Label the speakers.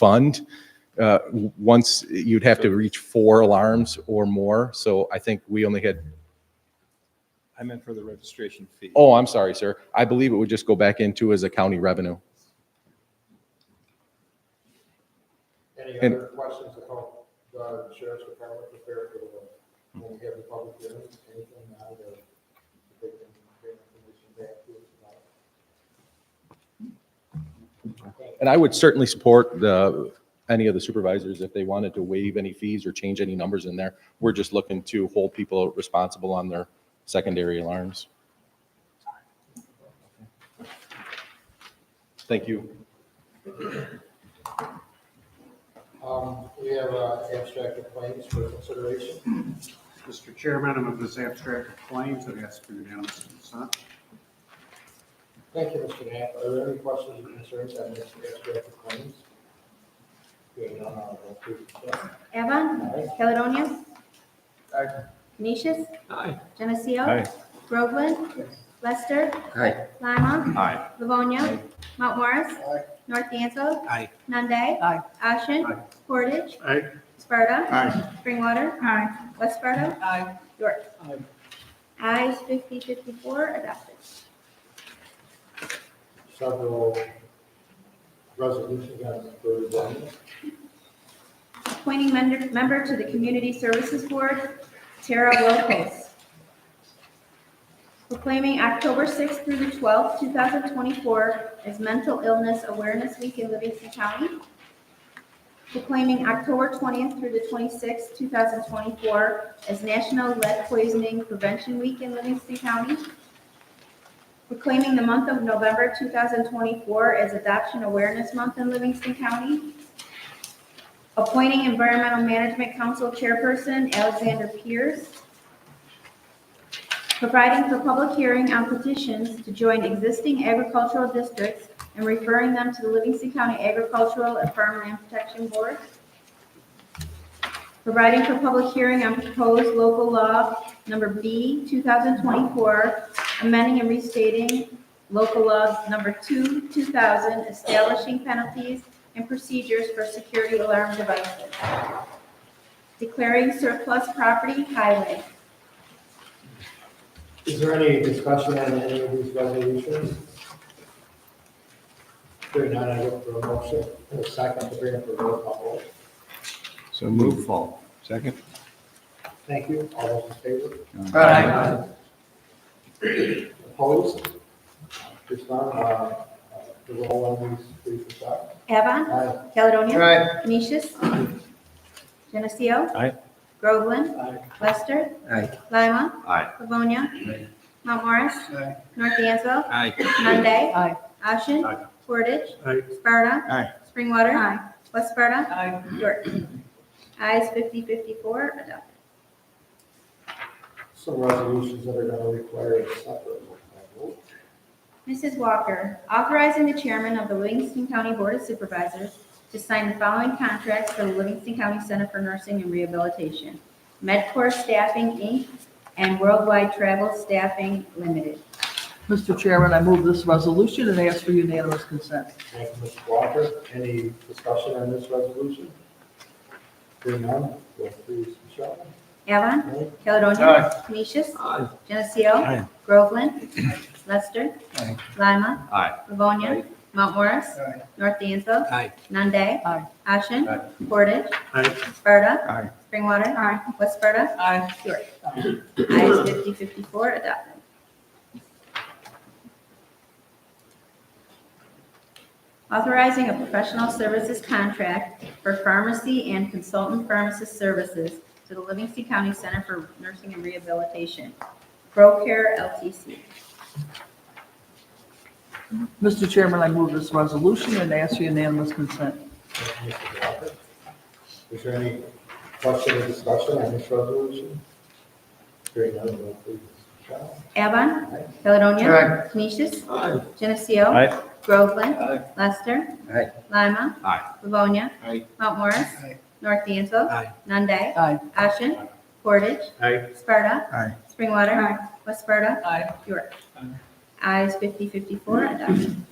Speaker 1: fund, uh, w- once you'd have to reach four alarms or more. So I think we only had,
Speaker 2: I meant for the registration fee.
Speaker 1: oh, I'm sorry, sir. I believe it would just go back into as a county revenue.
Speaker 3: Any
Speaker 1: And-
Speaker 3: other questions about the sheriff's department prepare for the, when we have the public hearing, anything out of the, they can get information back to us about?
Speaker 1: And I would certainly support the, any of the supervisors if they wanted to waive any fees or change any numbers in there. We're just looking to hold people responsible on their secondary alarms. Thank you.
Speaker 3: Um, we have, uh, abstract of claims for consideration.
Speaker 4: Mr. Chairman, I'm of this abstract of claims and ask for unanimous consent.
Speaker 3: Thank you, Mr. Knapp. Are there any questions or concerns on this abstract of claims? Hearing none, I'll go to the vote.
Speaker 5: Evan.
Speaker 3: Aye.
Speaker 5: Caledonia.
Speaker 3: Aye.
Speaker 5: Canisius.
Speaker 2: Aye.
Speaker 5: Geneseo.
Speaker 1: Aye.
Speaker 5: Groveland. Lester. Lima.
Speaker 2: Aye.
Speaker 5: Livonia. Mount Morris. North Dansville.
Speaker 2: Aye.
Speaker 5: Nunde.
Speaker 6: Aye.
Speaker 5: Ashen.
Speaker 4: Aye.
Speaker 5: Portage.
Speaker 4: Aye.
Speaker 5: Sparta.
Speaker 4: Aye.
Speaker 5: Springwater. West Sparta.
Speaker 6: Aye.
Speaker 5: York.
Speaker 4: Aye.
Speaker 5: Ayes fifty fifty-four adopted.
Speaker 3: Several resolutions on the third one.
Speaker 5: Appointing member, member to the Community Services Board, Tara Wilkes. Proclaiming October 6th through the 12th, 2024 as Mental Illness Awareness Week in Livingston County. Proclaiming October 20th through the 26th, 2024 as National Lead Poisoning Prevention Week in Livingston County. Proclaiming the month of November 2024 as Adoption Awareness Month in Livingston County. Appointing Environmental Management Council Chairperson Alexander Pierce. Providing for public hearing on petitions to join existing agricultural districts and referring them to the Livingston County Agricultural and Farmland Protection Board. Providing for public hearing on proposed local law number B, 2024, amending and restating local law number 2, 2000, establishing penalties and procedures for security alarm devices. Declaring surplus property highway.
Speaker 3: Is there any discussion on any of these resolutions? There none, I look for a motion, and a second to bring up a roll call vote.
Speaker 2: So move, Fall. Second?
Speaker 3: Thank you, all those in favor?
Speaker 6: Aye.
Speaker 3: Opposed? Just none, uh, uh, the roll on these, please, is up.
Speaker 5: Avon,
Speaker 3: Aye.
Speaker 5: Caledonia,
Speaker 3: Aye.
Speaker 5: Canisius, Geneseo.
Speaker 1: Aye.
Speaker 5: Groveland,
Speaker 3: Aye.
Speaker 5: Lester,
Speaker 2: Aye.
Speaker 5: Lima,
Speaker 2: Aye.
Speaker 5: Livonia, Mount Morris,
Speaker 4: Aye.
Speaker 5: North Dansville,
Speaker 2: Aye.
Speaker 5: Nunde,
Speaker 6: Aye.
Speaker 5: Ashen,
Speaker 4: Aye.
Speaker 5: Portage,
Speaker 4: Aye.
Speaker 5: Sparta,
Speaker 2: Aye.
Speaker 5: Springwater, West Sparta,
Speaker 6: Aye.
Speaker 5: York. Ayes 5054 adopted.
Speaker 3: Some resolutions that are going to require a separate roll call
Speaker 5: Mrs. Walker, authorizing the chairman of the Livingston County Board of Supervisors to sign the following contracts for the Livingston County Center for Nursing and Rehabilitation, MedCore Staffing, Inc., and Worldwide Travel Staffing Limited.
Speaker 6: Mr. Chairman, I move this resolution and ask for unanimous consent.
Speaker 3: vote. Thank you, Mr. Walker. Any discussion on this resolution? Hearing none, vote please, Michelle.
Speaker 5: Avon,
Speaker 3: Aye.
Speaker 5: Caledonia. Canisius. Geneseo.
Speaker 2: Aye.
Speaker 5: Groveland. Lester. Lima.
Speaker 2: Aye.
Speaker 5: Livonia.
Speaker 2: Aye.
Speaker 5: Mount Morris. North Dansville.
Speaker 2: Aye.
Speaker 5: Nunde.
Speaker 6: Aye.
Speaker 5: Ashen.
Speaker 2: Aye.
Speaker 5: Portage.
Speaker 4: Aye.
Speaker 5: Sparta.
Speaker 2: Aye.
Speaker 5: Springwater. West Sparta.
Speaker 6: Aye.
Speaker 5: York. Ayes fifty fifty-four adopted. Authorizing a professional services contract for pharmacy and consultant pharmacist services to the Livingston County Center for Nursing and Rehabilitation, ProCare LTC.
Speaker 6: Mr. Chairman, I move this resolution and ask for unanimous consent.
Speaker 3: Thank you, Mr. Walker. Is there any question or discussion on this resolution? Hearing none, vote please. Michelle. Aye.
Speaker 5: Avon, Caledonia, Canisius, Geneseo.
Speaker 1: Aye.
Speaker 5: Groveland.
Speaker 2: Aye.
Speaker 5: Lester.
Speaker 2: Aye.
Speaker 5: Lima.
Speaker 2: Aye.
Speaker 5: Livonia.
Speaker 2: Aye.
Speaker 5: Mount Morris.
Speaker 4: Aye.
Speaker 5: North Dansville.
Speaker 2: Aye.
Speaker 5: Nunde.
Speaker 6: Aye.
Speaker 5: Ashen. Portage.
Speaker 4: Aye.
Speaker 5: Sparta.
Speaker 2: Aye.
Speaker 5: Springwater. West Sparta.
Speaker 6: Aye.
Speaker 5: York. Ayes 5054 adopted.